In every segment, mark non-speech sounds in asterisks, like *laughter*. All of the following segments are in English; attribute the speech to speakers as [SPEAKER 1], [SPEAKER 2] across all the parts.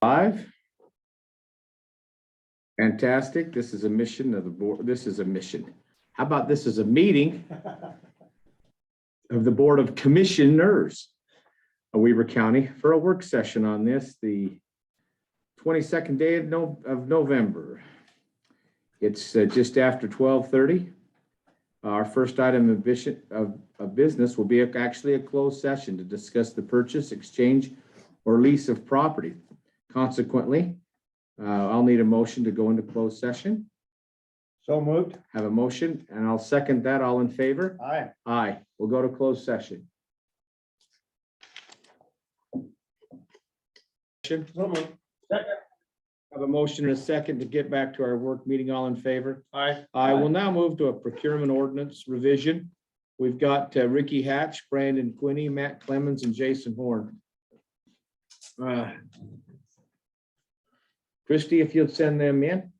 [SPEAKER 1] Five. Fantastic. This is a mission of the board. This is a mission. How about this is a meeting of the Board of Commissioners of Weaver County for a work session on this, the twenty-second day of No, of November. It's uh, just after twelve thirty. Our first item of vision, of, of business will be actually a closed session to discuss the purchase, exchange, or lease of property. Consequently, uh, I'll need a motion to go into closed session.
[SPEAKER 2] So moved.
[SPEAKER 1] Have a motion, and I'll second that. All in favor?
[SPEAKER 2] Aye.
[SPEAKER 1] Aye. We'll go to closed session. Session.
[SPEAKER 2] So moved.
[SPEAKER 1] Have a motion and a second to get back to our work meeting. All in favor?
[SPEAKER 2] Aye.
[SPEAKER 1] I will now move to a procurement ordinance revision. We've got uh, Ricky Hatch, Brandon Quinney, Matt Clemens, and Jason Horn. Uh, Christie, if you'd send them in.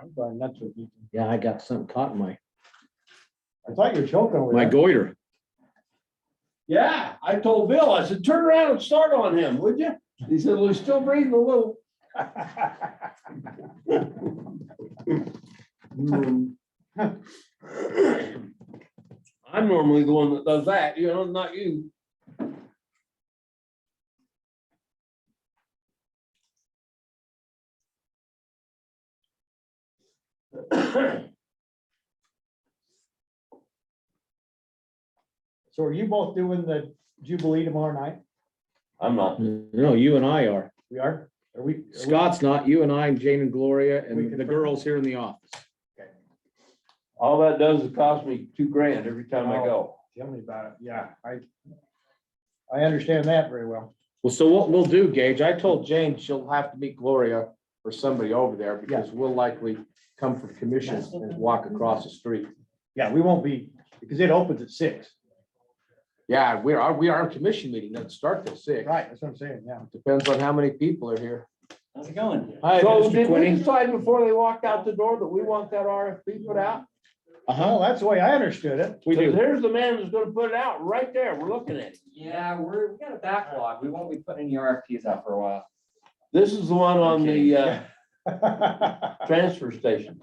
[SPEAKER 2] I'm going nuts with you.
[SPEAKER 1] Yeah, I got something caught in my,
[SPEAKER 2] I thought you were choking over
[SPEAKER 1] my
[SPEAKER 2] there.
[SPEAKER 1] goiter.
[SPEAKER 3] Yeah, I told Bill, I said, turn around and start on him, would you? He said, well, he's still breathing a little. I'm normally the one that does that, you know, not you.
[SPEAKER 2] So are you both doing the Jubilee tomorrow night?
[SPEAKER 3] I'm not.
[SPEAKER 1] No, you and I are.
[SPEAKER 2] We are? Are we? are we-
[SPEAKER 1] Scott's not. You and I and Jane and Gloria
[SPEAKER 2] We
[SPEAKER 1] and
[SPEAKER 2] can-
[SPEAKER 1] the girls here in the office.
[SPEAKER 3] All that does is cost me two grand every time I go.
[SPEAKER 2] Tell me about it. Yeah, I, I understand that very well.
[SPEAKER 1] Well, so what we'll do, Gage, I told Jane she'll have to meet Gloria or somebody over there because we'll likely come from commission and walk across the street.
[SPEAKER 2] Yeah, we won't be, because it opens at six.
[SPEAKER 1] Yeah, we are, we are a commission meeting. Doesn't start till six.
[SPEAKER 2] Right, that's what I'm saying, yeah.
[SPEAKER 1] Depends on how many people are here.
[SPEAKER 4] How's it going?
[SPEAKER 1] Hi,
[SPEAKER 3] So
[SPEAKER 1] Mr.
[SPEAKER 3] did we
[SPEAKER 1] Quinney.
[SPEAKER 3] decide before they walked out the door that we want that RFP put out?
[SPEAKER 2] Well, that's the way I understood it. *laughs*
[SPEAKER 1] We
[SPEAKER 3] So
[SPEAKER 1] do.
[SPEAKER 3] There's the man that's gonna put it out right there. We're looking at it.
[SPEAKER 4] Yeah, we're, we got a backlog. We won't be putting any RFPs out for a while.
[SPEAKER 3] This is the one on the uh,
[SPEAKER 2] Right,
[SPEAKER 3] transfer station.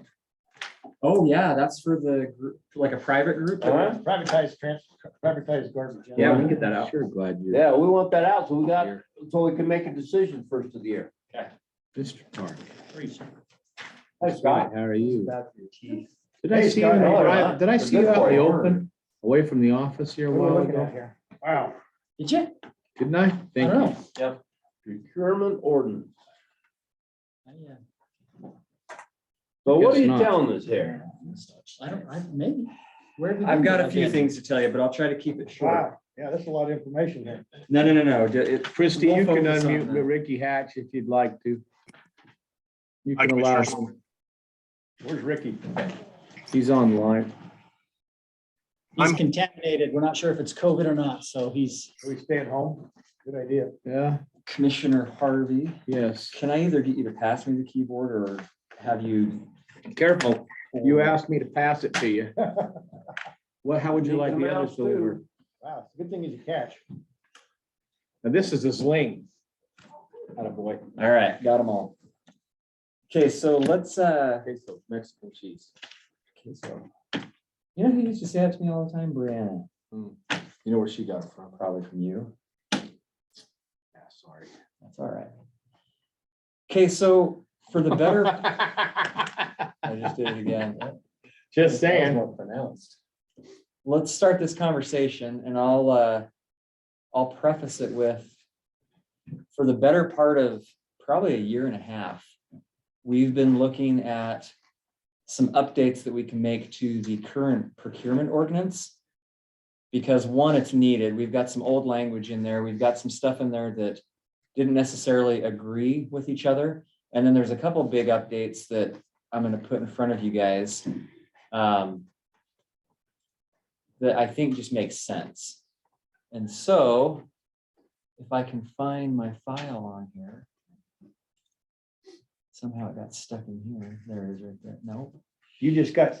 [SPEAKER 4] Oh, yeah, that's for the group, like a private group.
[SPEAKER 3] Uh-huh.
[SPEAKER 2] Privatized trans, privatized garbage.
[SPEAKER 4] Yeah, we can get that out.
[SPEAKER 1] Sure glad you're
[SPEAKER 3] Yeah, we want that out so we got,
[SPEAKER 1] here.
[SPEAKER 3] so we can make a decision first of the year.
[SPEAKER 1] Mr. Tark.
[SPEAKER 2] That's right.
[SPEAKER 1] How are you? Did
[SPEAKER 2] Hey,
[SPEAKER 1] I see you,
[SPEAKER 2] Scott,
[SPEAKER 1] in the
[SPEAKER 2] how are
[SPEAKER 1] drive-
[SPEAKER 3] you?
[SPEAKER 1] did I
[SPEAKER 3] Good
[SPEAKER 1] see you out in the
[SPEAKER 3] for you.
[SPEAKER 1] open, away from the office here a
[SPEAKER 2] What are we
[SPEAKER 1] while
[SPEAKER 2] looking at
[SPEAKER 1] ago?
[SPEAKER 2] here? Wow.
[SPEAKER 4] Did you?
[SPEAKER 1] Didn't I? Thank you.
[SPEAKER 3] Procurement ordinance.
[SPEAKER 4] Yeah.
[SPEAKER 5] uh,
[SPEAKER 3] So what
[SPEAKER 1] Guess
[SPEAKER 3] are you
[SPEAKER 1] not.
[SPEAKER 3] telling us here?
[SPEAKER 4] I don't, I, maybe. I've got a few things to tell you, but I'll try to keep it short.
[SPEAKER 2] Wow, yeah, that's a lot of information here.
[SPEAKER 4] No, no, no, no. ju- it-
[SPEAKER 1] Christie, you
[SPEAKER 4] We'll
[SPEAKER 1] can
[SPEAKER 4] focus on
[SPEAKER 1] unmute
[SPEAKER 4] that.
[SPEAKER 1] Ricky Hatch if you'd like to. You
[SPEAKER 6] Hi,
[SPEAKER 1] can allow,
[SPEAKER 6] Commissioners.
[SPEAKER 1] him. he's online.
[SPEAKER 5] He's
[SPEAKER 6] I'm-
[SPEAKER 5] contaminated. We're not sure if it's COVID or not, so he's
[SPEAKER 2] We stay at home. Good idea.
[SPEAKER 1] Yeah,
[SPEAKER 4] Commissioner Harvey,
[SPEAKER 1] yes.
[SPEAKER 4] can I either get you to pass me the keyboard or have you?
[SPEAKER 1] Careful, you asked me to pass it to
[SPEAKER 4] *laughs*
[SPEAKER 1] you. Well, how would you like the others to deliver?
[SPEAKER 2] Wow, it's a good thing is you catch.
[SPEAKER 1] Now, this is a sling. Attaboy.
[SPEAKER 4] All right, got them all. Okay, so let's, uh,
[SPEAKER 1] Queso, Mexican cheese.
[SPEAKER 4] okay, so. You know who used to say that to me all the time? Brianna,
[SPEAKER 1] You know where she got it from?
[SPEAKER 4] probably from you.
[SPEAKER 1] Yeah, sorry.
[SPEAKER 4] That's all right. Okay, so for the better, I just did it again.
[SPEAKER 1] Just saying.
[SPEAKER 4] More pronounced. Let's start this conversation and I'll, uh, I'll preface it with, for the better part of probably a year and a half, we've been looking at some updates that we can make to the current procurement ordinance. Because one, it's needed. We've got some old language in there. We've got some stuff in there that didn't necessarily agree with each other. And then there's a couple big updates that I'm gonna put in front of you guys. um, That I think just makes sense. And so if I can find my file on here. Somehow it got stuck in here. There it is right there. Nope.
[SPEAKER 2] You just got